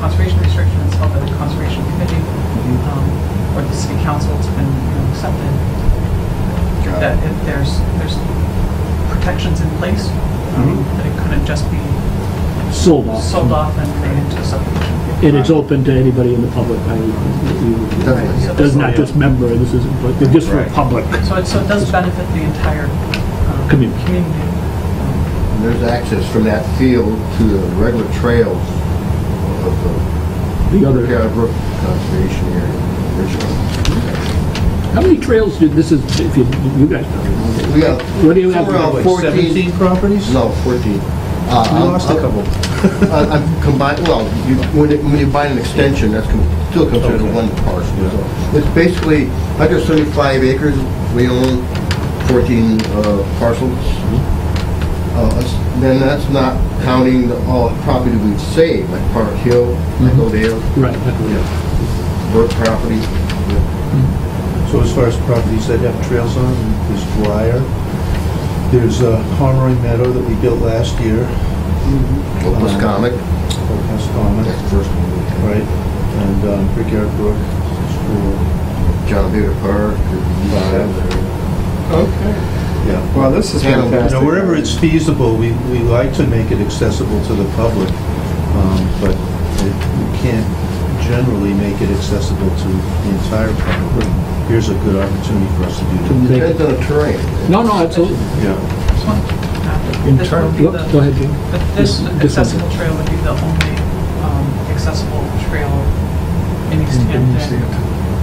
conservation restriction is held by the conservation committee Mm-hmm. um, or the city council. It's been you know, accepted Got that it. if there's, there's protections in place, um, Mhm. that it couldn't just be sold off. sold off and made into a subdivision. And it's open to anybody in the public. I- you- Definitely. It Does not just member, this isn't, but just for Right. public. So it, so it does benefit the entire um, Community. Community. And There's access from that field to the regular trails of the The other, Bear Brook Conservation Area, Richmond. how many trails do, this is, if you, you guys don't know. We got, What do you have? Well, Wait, 14 17 properties? no, 14. Uh, We I'm- lost a I'm- couple. I- I'm combined, well, you- when it- when you buy an extension, that's con- still considered Okay. one parcel. so. It's basically 175 acres, we own 14 uh, parcels. Uh, it's- Then that's not counting the- all the property we save, like Park Hill, Echo Dale, Right, okay. Burke property. So as far as properties that have trails on, there's Dwyer, there's uh, Pomeroy Meadow that we built last year, Opus Uh, Comic, or Pascoma, that's the first one. right? And um, Brickyard Brook is for, John Deere Park. Okay. yeah. Well, this is Yeah, You fantastic. know, wherever it's feasible, we, we like to make it accessible to the public, um, but it- we can't generally make it accessible to the entire public. Here's a good opportunity for us To to do make Depends it- on the terrain. No, no, absolutely. that. Yeah. Just one, uh, In this turn- would be Whoop, the- Go ahead, Jim. But this This- this accessible trail would be the only um, accessible trail in East Hampton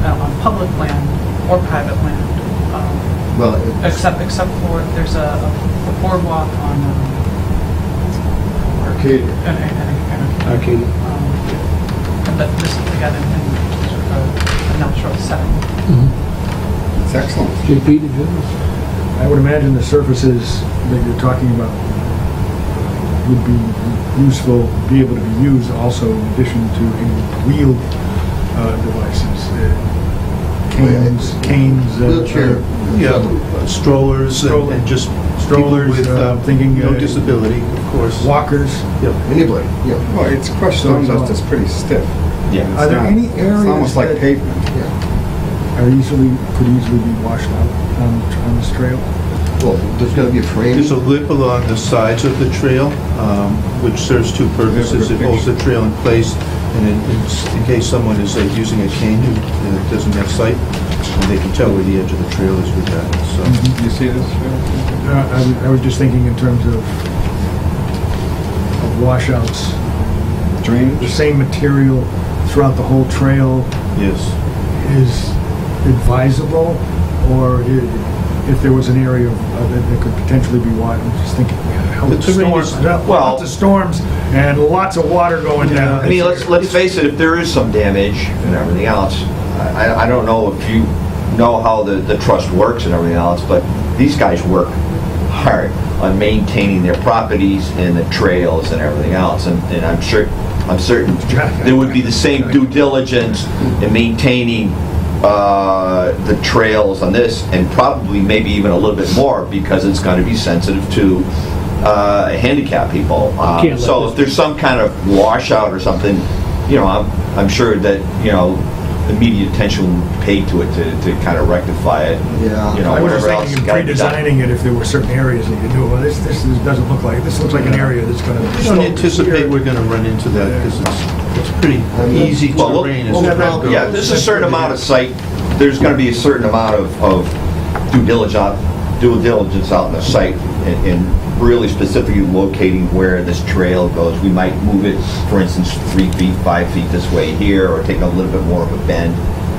uh, on public land or private land, um, Well, it's- except, except for, there's a a boardwalk on, um, Arcadia. and- and- and- and, Arcadia. um, but this is again in in sort of a- a natural setting. It's excellent. JP, did you? have- I would imagine the surfaces that you're talking about would be useful, be able to be used also in addition to any wheeled uh, devices, uh, canes, canes. uh, Wheelchair. Yeah, uh, strollers and and just strollers Strollers, with, uh, uh, thinking, no uh, disability, of course. Walkers. Anybody, yeah. Well, it's crushed stone dust is pretty stiff. Yeah. Are there any It's areas almost like that- pavement. Are easily, could easily be washed out on on this trail? Well, there's gonna be a frame. There's a lip along the sides of the trail, um, which serves two purposes. It holds the trail in place, and in- in in case someone is uh, using a cane who uh, doesn't have sight, and they can tell where the edge of the trail is with that, so. You see this? Phil? Uh, I was- I was just thinking in terms of of washouts, the Drainage? same material throughout the whole trail, Yes. is advisable, or i- if there was an area of- of- that that could potentially be water, I'm just thinking, hell, The the terrain is- storms, well- lots of storms, and lots of water going down. I mean, let's, let's face it, if there is some damage and everything else, I, I don't know if you know how the, the trust works and everything else, but these guys work hard on maintaining their properties and the trails and everything else, and, and I'm sure, I'm certain there would be the same due diligence in maintaining, uh, the trails on this, and probably maybe even a little bit more, because it's gonna be sensitive to, uh, handicap people. Uh, Can't let So this if there's some kind of washout or something, you know, I'm, I'm sure that, you know, immediate attention will be paid to it to, to kind of rectify it. and, Yeah. You know, I was just whatever else. thinking of gotta be done. pre-designing it if there were certain areas that you knew, well, this, this is- doesn't look like, this looks like an area that's gonna. I don't anticipate we're gonna run into that, because it's, it's pretty easy Well, we'll- terrain as we'll- well Yeah, goes. there's a certain amount of site, there's gonna be a certain amount of, of due diligence, due diligence out on the site and, and really specifically locating where this trail goes. We might move it, for instance, three feet, five feet this way here, or take a little bit more of a bend,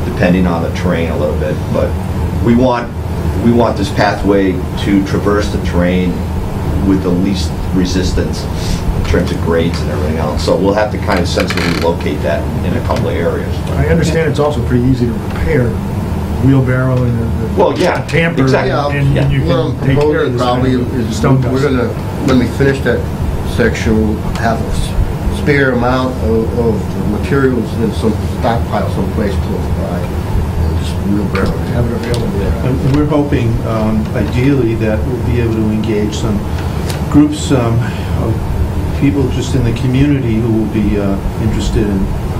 depending on the terrain a little bit. But we want, we want this pathway to traverse the terrain with the least resistance in terms of grades and everything else. So we'll have to kind of sensibly locate that in a couple of areas. I understand it's also pretty easy to repair, wheelbarrow and the- the. Well, yeah, Tamper, exactly. and Yeah. and you What I'm can take care of proposing this. kind probably of is, Stone dust. we're gonna, when we finish that section, we'll have a s- spare amount of, of materials in some stockpile someplace close by. and Just wheelbarrow it. Have it available. And we're hoping, um, ideally, that we'll be able to engage some groups um, of people just in the community who will be uh, interested in